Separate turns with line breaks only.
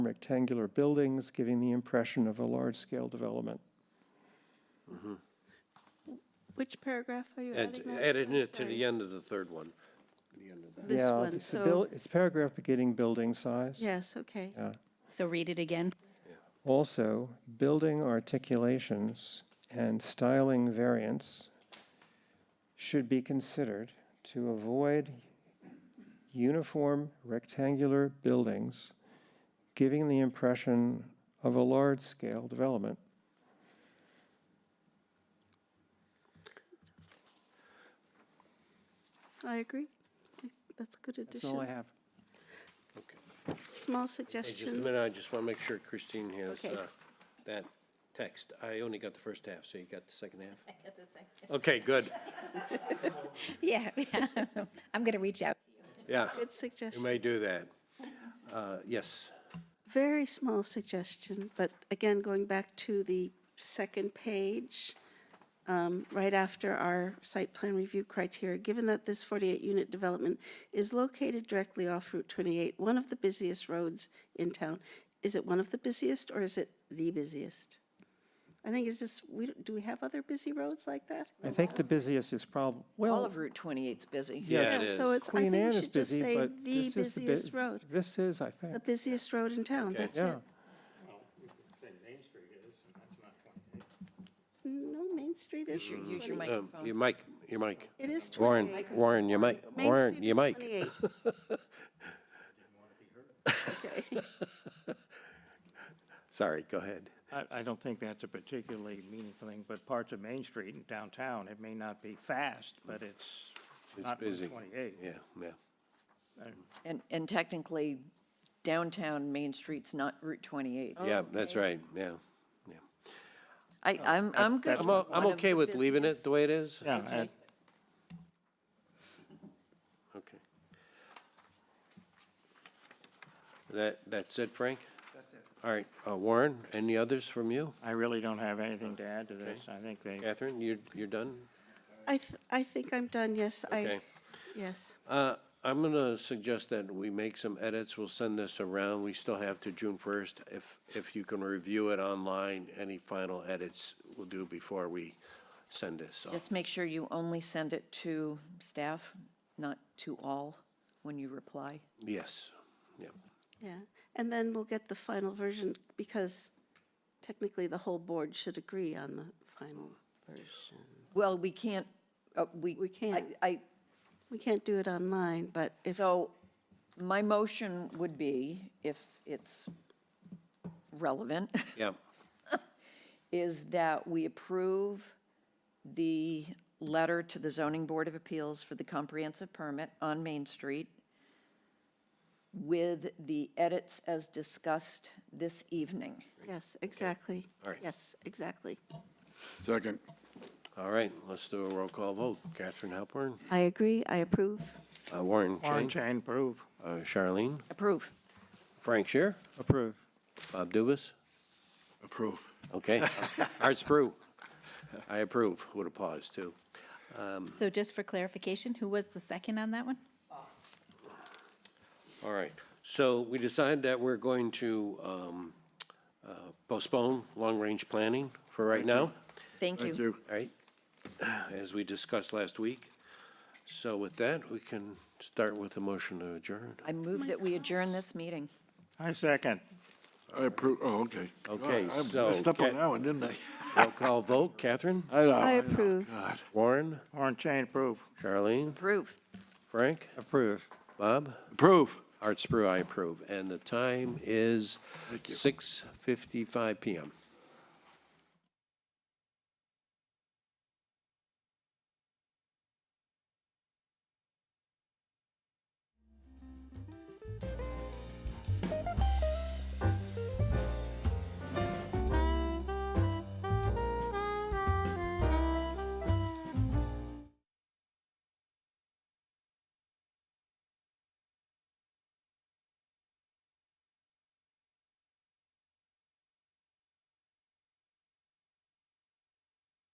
rectangular buildings, giving the impression of a large-scale development.
Which paragraph are you
And
adding that?
adding
I'm
it to
sorry.
the end of the third one.
This
Yeah,
one,
it's the buil-
so,
It's paragraph beginning building size.
yes, okay.
So read it again.
Also, building articulations and styling variants should be considered to avoid uniform rectangular buildings, giving the impression of a large-scale development.
I agree. That's a good
That's all I
addition.
have.
Okay.
Small
Hey, Just a
suggestion.
minute, I just want to make sure Christine has
Okay.
uh, that text. I only got the first half, so you got the second half? I got the second. Okay, good.
Yeah, I'm going to reach out.
Yeah,
Good
you
suggestion.
may do that. Uh, Yes,
Very small suggestion, but again, going back to the second page, um, right after our site plan review criteria, given that this 48-unit development is located directly off Route 28, one of the busiest roads in town, is it one of the busiest or is it the busiest? I think it's just, we, don't- do we have other busy roads like that?
I think the busiest is prob, well.
All of Route 28's busy.
yeah, it
Yeah,
is.
so it's, I
Queen Anne
think we
is
should just
busy,
say the
but this is the
busiest
bu-
road,
this is, I think,
the busiest road in town, that's it.
yeah.
No, Main Street is
Use your
28.
Um, Your
microphone.
mic, your mic.
It is
Warren,
28.
Warren, your mic,
Main
Warren,
Street
your
is
mic.
28.
Sorry, go ahead.
I, I don't think that's a particularly meaningful thing, but parts of Main Street and downtown, it may not be fast, but it's
It's
not
busy.
128.
Yeah, yeah.
And, and technically, downtown Main Street's not Route 28.
Oh,
Yeah, that's right, yeah. yeah.
I, I'm, I'm good.
I'm, o- I'm
one of
okay
the
with leaving it the way it is?
Yeah, and
Okay. That, that's it, Frank? That's it. All right, uh, Warren, any others from you?
I really don't have anything to add to this. I think they,
Catherine, you, you're done?
I, th- I think I'm done, yes, I,
Okay.
yes.
Uh, I'm gonna suggest that we make some edits, we'll send this around, we still have to June first. If, if you can review it online, any final edits we'll do before we send this off.
Just make sure you only send it to staff, not to all, when you reply.
Yes, yeah,
Yeah, and then we'll get the final version, because technically the whole board should agree on the final.
Well, we can't, uh, we.
We can't.
I, I-
We can't do it online, but if,
So my motion would be, if it's relevant,
yeah,
is that we approve the letter to the Zoning Board of Appeals for the comprehensive permit on Main Street with the edits as discussed this evening.
yes, exactly.
All right.
Yes, exactly.
Second.
all right, let's do a roll call vote. Catherine Halpern,
I agree, I approve.
uh, Warren Chain,
Warren Chain, prove.
uh, Charlene,
Approve.
Frank Shear,
Approve.
Bob Dubus.
Approve.
Okay, Arts Brew. I approve, with a pause, too.
So just for clarification, who was the second on that one?
All right, so we decided that we're going to um, uh, postpone long-range planning for right now,
Thank
Thank
you.
you.
all right? As we discussed last week. So with that, we can start with a motion to adjourn.
I move that we adjourn this meeting.
I second.
I approve, oh, okay.
Okay,
God, I
so
messed up
Cat-
on that one, didn't I?
Roll call vote, Catherine,
I know,
I
know.
approve.
God.
Warren,
Warren Chain, prove.
Charlene,
Approve.
Frank,
Approve.
Bob.
Approve.
Art Sprue, I approve. And the time is 6:55 PM.